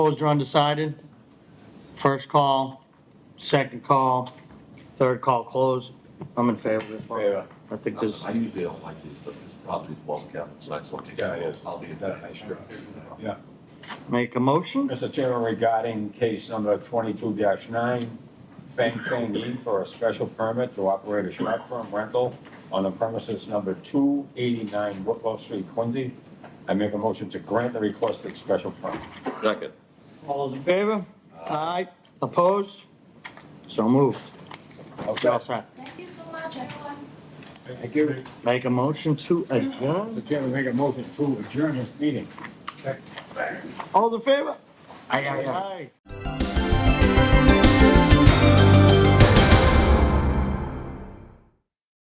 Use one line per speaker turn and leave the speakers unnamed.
Opposed or undecided? First call, second call, third call closed. I'm in favor of this one.
Favor.
I think this,
I usually don't like these, but this probably well kept, it's nice looking.
Yeah, it is.
I'll be a nice strip.
Yeah.
make a motion?
Mr. Chairman, regarding case number twenty-two nine, Feng Feng Yi for a special permit to operate a short-term rental on the premises number two eighty-nine Whitlow Street, Quincy. I make a motion to grant the requested special permit.
Second.
All those in favor? Aye. Opposed? So moved. You're all set.
Thank you so much, everyone.
Thank you.
Make a motion to adjourn.
Mr. Chairman, make a motion to adjourn this meeting.
All those in favor?
Aye, aye, aye.
Aye.